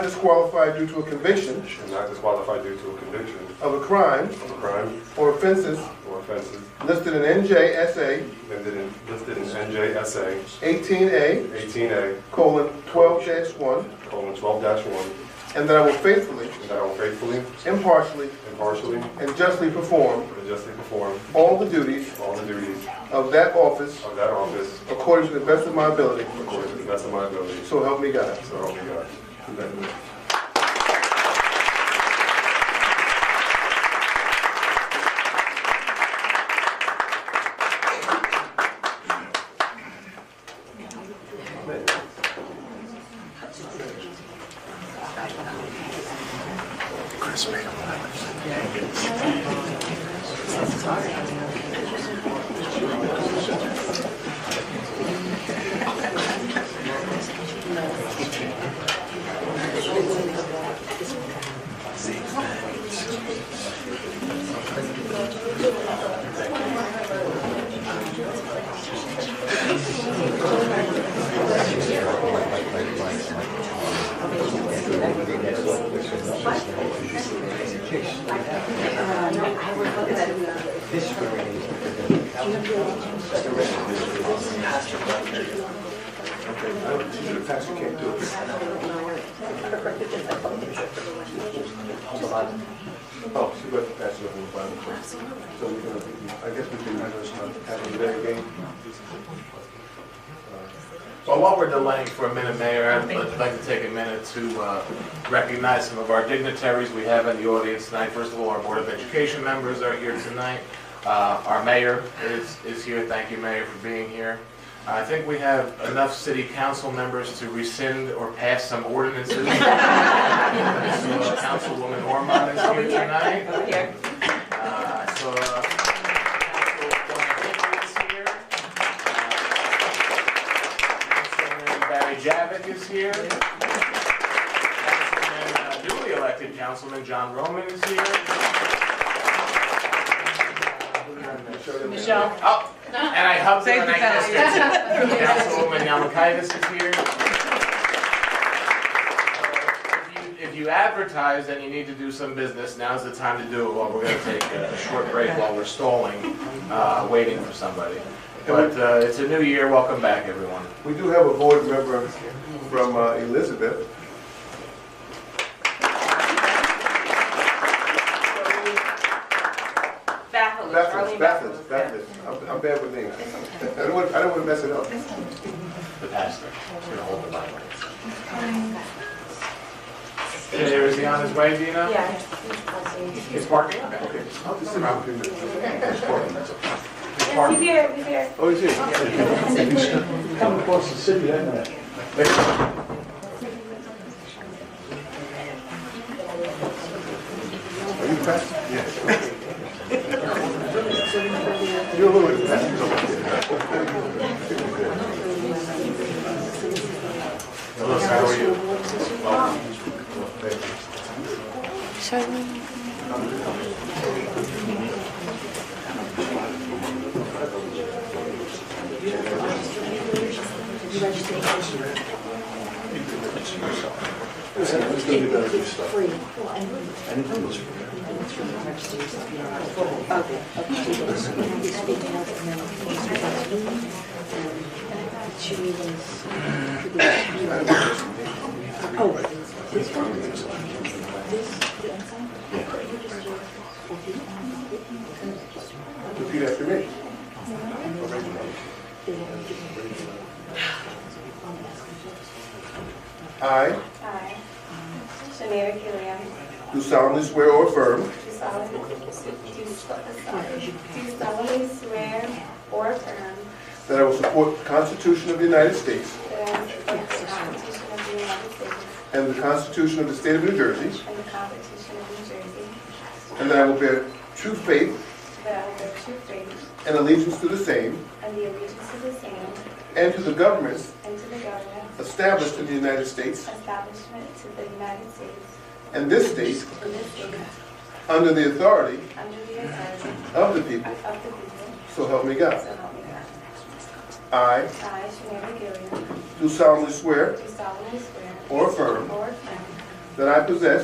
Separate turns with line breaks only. disqualified due to a conviction
should not disqualify due to a conviction
of a crime
of a crime
or offenses
or offenses
listed in NJSA
listed in, listed in NJSA
18A
18A
colon 12-1,
colon 12-1,
and that I will faithfully,
and that I will faithfully,
impartially,
impartially,
and justly perform
and justly perform
all the duties
all the duties
of that office
of that office
according to the best of my ability.
according to the best of my ability.
So help me God.
So help me God. Congratulations.
Oh, she got to pass it on the final So we're gonna, I guess we can have this, have a very game.
Well, while we're delaying for a minute, Mayor, I'd I'd like to take a minute to uh, recognize some of our dignitaries we have in the audience tonight. First of all, our Board of Education members are here tonight. Uh, Our mayor is is here. Thank you, Mayor, for being here. I think we have enough city council members to rescind or pass some ordinances. So, uh, Councilwoman Ormond is here tonight.
Over here.
Uh, I saw uh, Councilwoman Hickory's here. Councilman Barry Javitt is here. Councilman, uh, newly elected Councilman John Roman is here.
Michelle.
Oh, and I hugged her and I kissed her. Councilwoman Yamakaitis is here. Uh, If you- If you advertise and you need to do some business, now's the time to do it, while we're gonna take a short break while we're stalling, uh, waiting for somebody. But uh, it's a new year, welcome back, everyone.
We do have a board member from uh, Elizabeth.
Baffles,
Baptist,
Arlene
Baptist,
Baffles.
Baptist. I'm, I'm bad with names. I don't want, I don't want to mess it up.
The pastor is gonna hold the Bible. There is he on his way, Dina?
Yeah.
He's parking? Okay.
I'll just sit down for a minute.
He's parking.
He's here, he's here.
Oh, is it?
Come across the city, isn't it?
Are you Baptist? Yes. You're a little Baptist.
Hello, sir, how are you?
Repeat after me. I
I, Shamira Gilliam,
do solemnly swear or affirm
do solemnly do solemnly swear or affirm
that I will support the Constitution of the United States
that I will support the Constitution of the United States
and the Constitution of the State of New Jersey,
and the Constitution of New Jersey,
and that I will bear true faith
that I will bear true faith
and allegiance to the same
and the allegiance to the same
and to the governments
and to the government
established in the United States
establishment to the United States
and this state
and this state
under the authority
under the authority
of the people,
of the people,
so help me God.
so help me God.
I
I, Shamira Gilliam,
do solemnly swear
do solemnly swear
or affirm
or affirm
that I possess